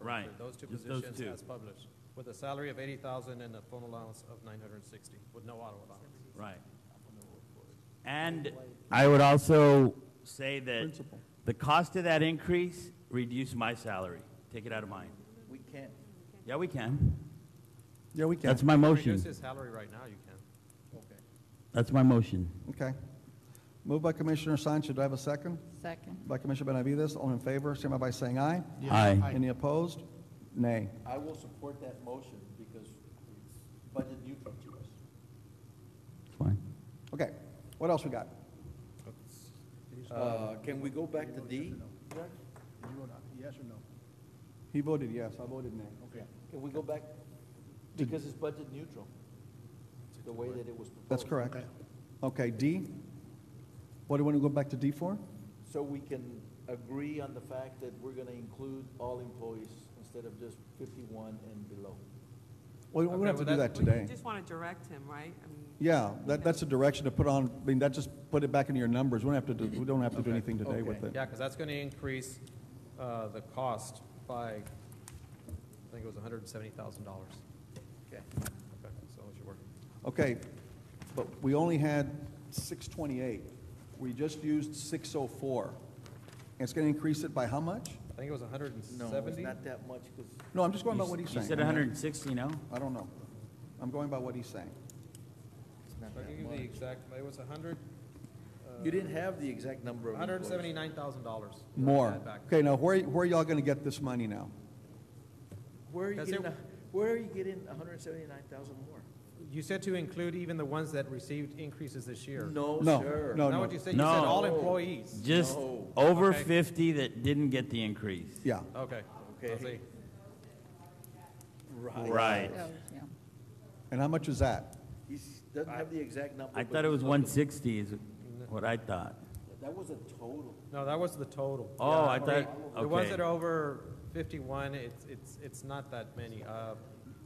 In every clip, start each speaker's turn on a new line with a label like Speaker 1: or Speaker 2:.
Speaker 1: Right.
Speaker 2: Those two
Speaker 1: Just those
Speaker 2: positions
Speaker 1: two.
Speaker 2: as published, with a salary of eighty thousand and a phone allowance of nine hundred and sixty, with no auto allowance.
Speaker 1: Right. And I would also say that the cost of that increase, reduce my salary. Take it out of mine.
Speaker 3: We can't,
Speaker 1: Yeah, we can.
Speaker 4: Yeah, we
Speaker 1: That's
Speaker 4: can.
Speaker 1: my
Speaker 2: Reduce
Speaker 1: motion.
Speaker 2: his salary right now, you can.
Speaker 3: okay.
Speaker 1: That's my motion.
Speaker 4: Okay. Moved by Commissioner Sanchez. Do I have a second?
Speaker 5: Second.
Speaker 4: By Commissioner Benavides. All in favor, signify by saying aye.
Speaker 1: Aye.
Speaker 4: Any opposed? Nay.
Speaker 3: I will support that motion because it's budget neutral to us.
Speaker 1: Fine.
Speaker 4: Okay. What else we got?
Speaker 3: Uh, Can we go back to D?
Speaker 4: He voted yes. I voted nay.
Speaker 3: Okay. Can we go back, because it's budget neutral, the way that it was proposed.
Speaker 4: That's correct. Okay, D? What do you want to go back to D for?
Speaker 3: So we can agree on the fact that we're gonna include all employees instead of just fifty-one and below.
Speaker 4: Well, we're
Speaker 2: Okay,
Speaker 4: gonna have
Speaker 2: well,
Speaker 4: to do that
Speaker 2: that's-
Speaker 6: Well,
Speaker 4: today.
Speaker 6: you just want to direct him, right? I mean,
Speaker 4: Yeah, that, that's a direction to put on, I mean, that just put it back into your numbers. We don't have to do, we don't have to do anything today with
Speaker 3: okay.
Speaker 4: it.
Speaker 2: Yeah, because that's going to increase uh, the cost by, I think it was hundred and seventy thousand dollars.
Speaker 3: Okay.
Speaker 2: Okay, so it should work.
Speaker 4: Okay, but we only had six twenty-eight. We just used six oh four. It's gonna increase it by how much?
Speaker 2: I think it was a hundred and
Speaker 3: No, it's
Speaker 2: seventy?
Speaker 3: not that much, because
Speaker 4: No, I'm just going by what he's
Speaker 1: You
Speaker 4: saying.
Speaker 1: said 160, no?
Speaker 4: I don't know. I'm going by what he's saying.
Speaker 3: it's not
Speaker 2: I can
Speaker 3: that
Speaker 2: give you the
Speaker 3: much.
Speaker 2: exact, it was a hundred,
Speaker 3: You didn't have the exact number of
Speaker 2: hundred and
Speaker 3: employees.
Speaker 2: seventy-nine thousand dollars.
Speaker 4: More. Okay, now where, where are y'all gonna get this money now?
Speaker 3: Where are you
Speaker 2: Because there-
Speaker 3: getting, a- where are you getting hundred and seventy-nine thousand more?
Speaker 2: You said to include even the ones that received increases this year.
Speaker 3: No,
Speaker 4: No,
Speaker 3: sir.
Speaker 4: no.
Speaker 2: Not what you said, you said
Speaker 1: No.
Speaker 2: all employees.
Speaker 1: Just
Speaker 3: No.
Speaker 1: over
Speaker 2: Okay.
Speaker 1: 50 that didn't get the increase.
Speaker 4: Yeah,
Speaker 2: Okay, I
Speaker 3: Okay.
Speaker 2: see.
Speaker 3: Right.
Speaker 1: Right.
Speaker 5: Those, yeah.
Speaker 4: and how much is that?
Speaker 3: He doesn't have the exact number.
Speaker 1: I
Speaker 3: but
Speaker 1: thought it
Speaker 3: he's
Speaker 1: was
Speaker 3: talking-
Speaker 1: 160 is what I thought.
Speaker 3: That was a total.
Speaker 2: No, that was the total.
Speaker 1: Oh,
Speaker 2: Yeah,
Speaker 1: I
Speaker 2: okay.
Speaker 1: thought-
Speaker 2: The ones
Speaker 1: okay.
Speaker 2: that are over fifty-one, it's, it's, it's not that many, uh,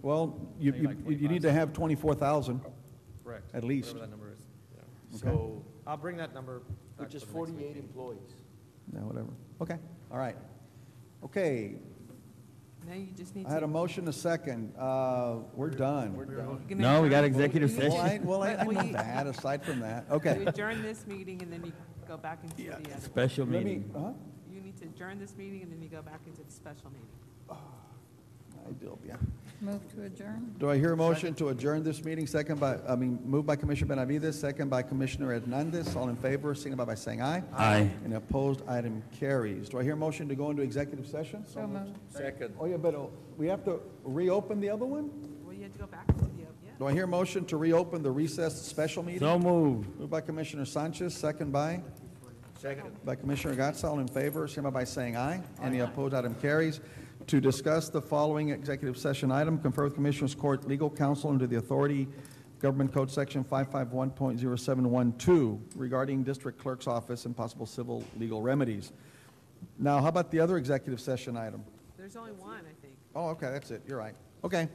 Speaker 4: Well, you,
Speaker 2: Maybe
Speaker 4: you,
Speaker 2: like
Speaker 4: you need to have twenty-four thousand.
Speaker 2: correct.
Speaker 4: At least.
Speaker 2: Whatever that number is, yeah.
Speaker 3: So,
Speaker 2: I'll bring that number back
Speaker 3: which
Speaker 2: to
Speaker 3: is
Speaker 2: the next
Speaker 3: forty-eight
Speaker 2: meeting.
Speaker 3: employees.
Speaker 4: Yeah, whatever. Okay, all right. Okay,
Speaker 6: Now you just need to.
Speaker 4: I had a motion, a second. Uh, we're
Speaker 3: We're
Speaker 4: done.
Speaker 3: done.
Speaker 6: You can
Speaker 1: No, we got
Speaker 6: adjourn-
Speaker 1: executive
Speaker 6: you
Speaker 1: session.
Speaker 4: Well, I, well, I,
Speaker 6: can-
Speaker 4: I
Speaker 6: Well,
Speaker 4: know
Speaker 6: you-
Speaker 4: that, aside from that.
Speaker 6: You
Speaker 4: Okay.
Speaker 6: adjourn this meeting and then you go back into the other.
Speaker 1: Special
Speaker 4: Let me, uh-huh.
Speaker 1: meeting.
Speaker 4: huh?
Speaker 6: You need to adjourn this meeting and then you go back into the special meeting.
Speaker 4: I do, yeah.
Speaker 5: Move to adjourn?
Speaker 4: Do I hear a motion to adjourn this meeting, second by, I mean, moved by Commissioner Benavides, second by Commissioner Hernandez, all in favor, signify by saying aye.
Speaker 1: Aye.
Speaker 4: And opposed, item carries. Do I hear a motion to go into executive session?
Speaker 5: So moved.
Speaker 3: Second.
Speaker 4: Oh, yeah, but uh, we have to reopen the other one?
Speaker 6: Well, you had to go back into the, yeah.
Speaker 4: Do I hear a motion to reopen the recessed special meeting?
Speaker 1: So moved.
Speaker 4: Moved by Commissioner Sanchez, second by?
Speaker 3: Second.
Speaker 4: By Commissioner Gatz, all in favor, signify by saying aye. Any opposed, item carries. To discuss the following executive session item, confer with Commissioners Court Legal Counsel under the authority Government Code Section 551.0712 regarding District Clerk's Office and possible civil legal remedies. Now, how about the other executive session item?
Speaker 6: There's only one, I think.
Speaker 4: Oh, okay, that's it, you're right. Okay.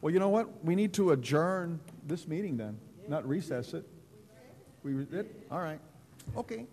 Speaker 4: Well, you know what? We need to adjourn this meeting then, not recess it. We, re- it, all right, okay.